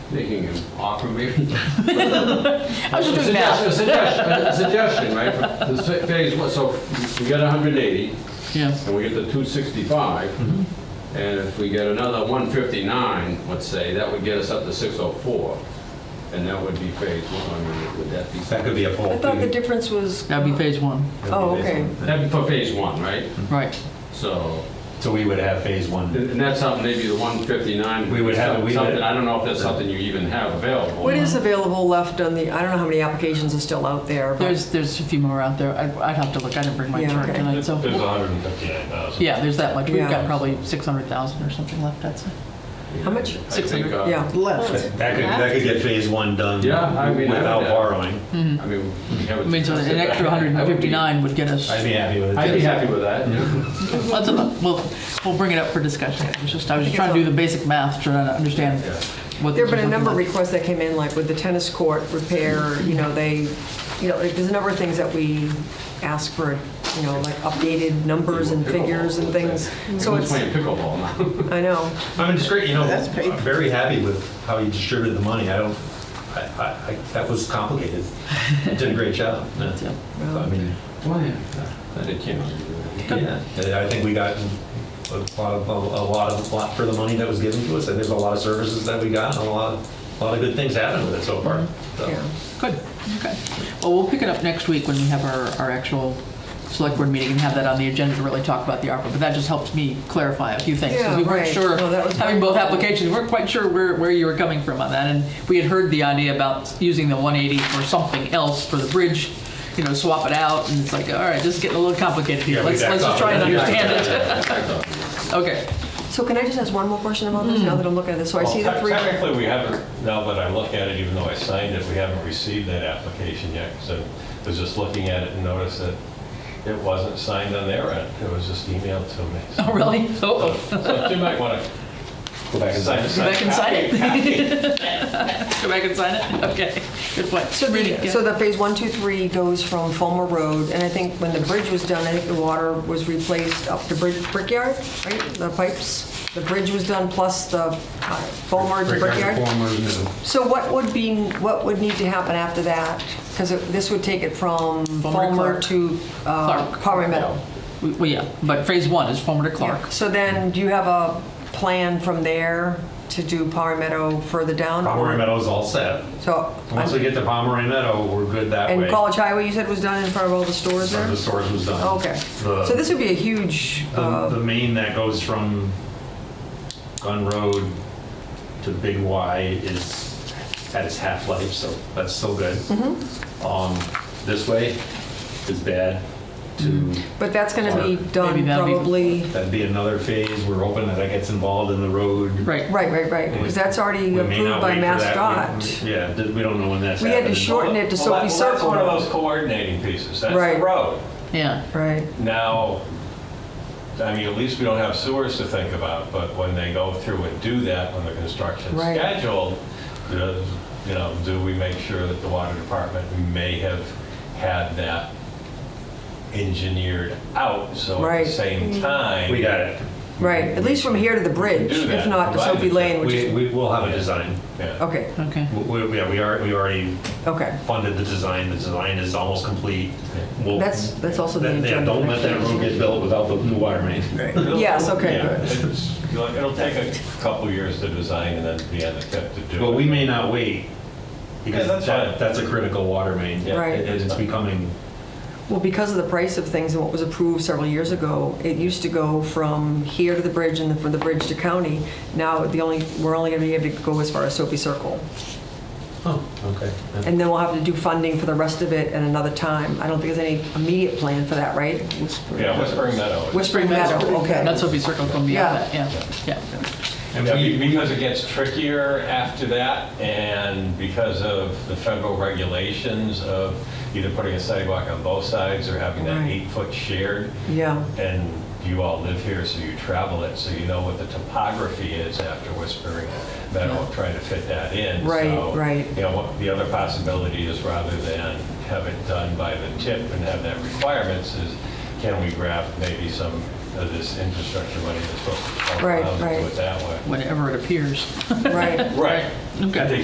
making an offer maybe. I was just doing math. A suggestion, a suggestion, right? The sa- phase, one- so we get 180, Yeah. and we get the 265, Mm-hmm. and if we get another 159, let's say, that would get us up to 604, and that would be phase one, I mean, would that be? That could be a poll. I thought the difference was, That'd be phase one, oh, okay. That'd be for phase one, right? right. So, So we would have phase one. and and that's something, maybe the 159. We would have- we would- Something, I don't know if that's something you even have available. What is available left on the, I don't know how many applications are still out there, but There's, there's a few more out there. I'd, I'd have to look. I didn't bring my Yeah, chart okay. tonight, There's so. 159,000. Yeah, there's that much. We've got Yeah. probably 600,000 or something left, I'd say. how much? I think, uh, Yeah, Left. That that could, that could get phase one done Yeah, I mean, I without would, uh, borrowing. I mean, we I haven't. mean, so an extra 159 would get us, I'd be happy with it. I'd be happy with that. that's about, we'll, we'll bring it up for discussion. It was just, I was just trying to do the basic math, trying to understand Yeah. what. there this have been a was number of looking requests that came in, like with the tennis court repair, you know, they, you know, like, there's a number of things that we ask for, you know, like updated numbers and figures and things. So Someone's it's, playing pickleball now. I know, I mean, it's great, you know, That's paid. I'm very happy with how you distributed the money. I don't, I, I, I- that was complicated. You did a great job. Yeah. Yeah. So, I mean, Why? That it can't be doing. yeah, And I think we got a lot of, a lot of, lot for the money that was given to us. And there's a lot of services that we got and a lot, of a lot of good things happened with it so far. So, yeah. Good, okay. Well, we'll pick it up next week when we have our, our actual select board meeting and have that on the agenda to really talk about the ARPA. But that just helps me clarify a few things. 'cause we Yeah, weren't right. sure, No, that was having very both helpful. applications, we weren't quite sure where, where you were coming from on that. And we had heard the idea about using the 180 for something else for the bridge, you know, swap it out. And it's like, all right, this is getting a little complicated here. Yeah, we Let's, backed let's just off. try and We understand backed it. Okay. So can I just ask one more question about this, now that I'm looking at this? So I see the Well, three, Technically, we haven't, now that I look at it, even though I signed it, we haven't received that application yet, because I was just looking at it and noticed that it wasn't signed on their end, it was just emailed to me. So- Oh, really? Oh, So you might want Go back to and sign. Go back and sign it. Go back and sign it? Okay, good point. so Reading, the, yeah. so the phase one, two, three goes from Fulmer Road, and I think when the bridge was done, I think the water was replaced up to Brick- Brickyard, right? The pipes, the bridge was done plus the uh, Fulmer to Brickyard. So what would be, what would need to happen after that? Because this would take it from Fulmer to Fulmer Clark. to uh, Clark. Palmer Meadow. We- Well, yeah, but phase one is Fulmer to Clark. So then, do you have a plan from there to do Palmer Meadow further down? or- Pomeroy Meadow's all set. So, Once we get to Pomeroy Meadow, we're good that way. and College Highway, you said was done in front of all the stores One there? of the stores was done. Oh, Okay. The- So this would be a huge, The, the uh, main that goes from Gun Road to Big Y is at its half-life, so that's still good. Mm-hmm. Um, This way is bad to, but that's going to be Maybe done that'd be- probably, that'd be another phase, we're hoping that that gets involved in the road. Right. right, right, right, because that's already We may approved not by wait for that. MassDot. We- Yeah, th- we don't know when that's We had to happening. shorten it to Well, that- Sophie well, That's one of Circle. those coordinating pieces, that's the Right. road. Yeah, Right, Now, I mean, at least we don't have sewers to think about, but when they go through and do that, when the construction's Right. scheduled, does, you know, do we make sure that the water department may have had that engineered out? So at Right. Mm-hmm. the same time. We got it. right, at least from here to the bridge, do if that, not to provided Sophie that Lane, which We, is, we will have a design. Yeah. okay, okay. We- We, yeah, we are, we already okay. funded the design, the design is almost complete. We'll- That's, that's also the That- agenda. Yeah, don't let next that year. road get built without the new water main. It'll- Yes, okay, yeah, good. it's- It'll it'll take a couple years to design and then be on the tip to do it. But we may not wait, because Yeah, that's that, fine. that's a critical water main. Yeah, Right. And it- it's it's- becoming, Well, because of the price of things and what was approved several years ago, it used to go from here to the bridge and then from the bridge to county. Now, the only, we're only going to be able to go as far as Sophie Circle. oh, okay. And then we'll have to do funding for the rest of it at another time. I don't think there's any immediate plan for that, right? Yeah, Whispering Meadow. is- Whispering Meadow, okay. That's Sophie Circle going to be Yeah. out of that, yeah, yeah. And Yeah, we- be- because it gets trickier after that, and because of the federal regulations of either putting a sidewalk on both sides or having that Right. eight-foot shared, Yeah, and you all live here, so you travel it, so you know what the topography is after Whispering Meadow, trying to fit that in. Right, So, right. You know, what- the other possibility is rather than have it done by the tip and have that requirements is, can we grab maybe some of this infrastructure money that's supposed to come Right, around and right. do it that way? Whenever it appears. right. Right. Okay.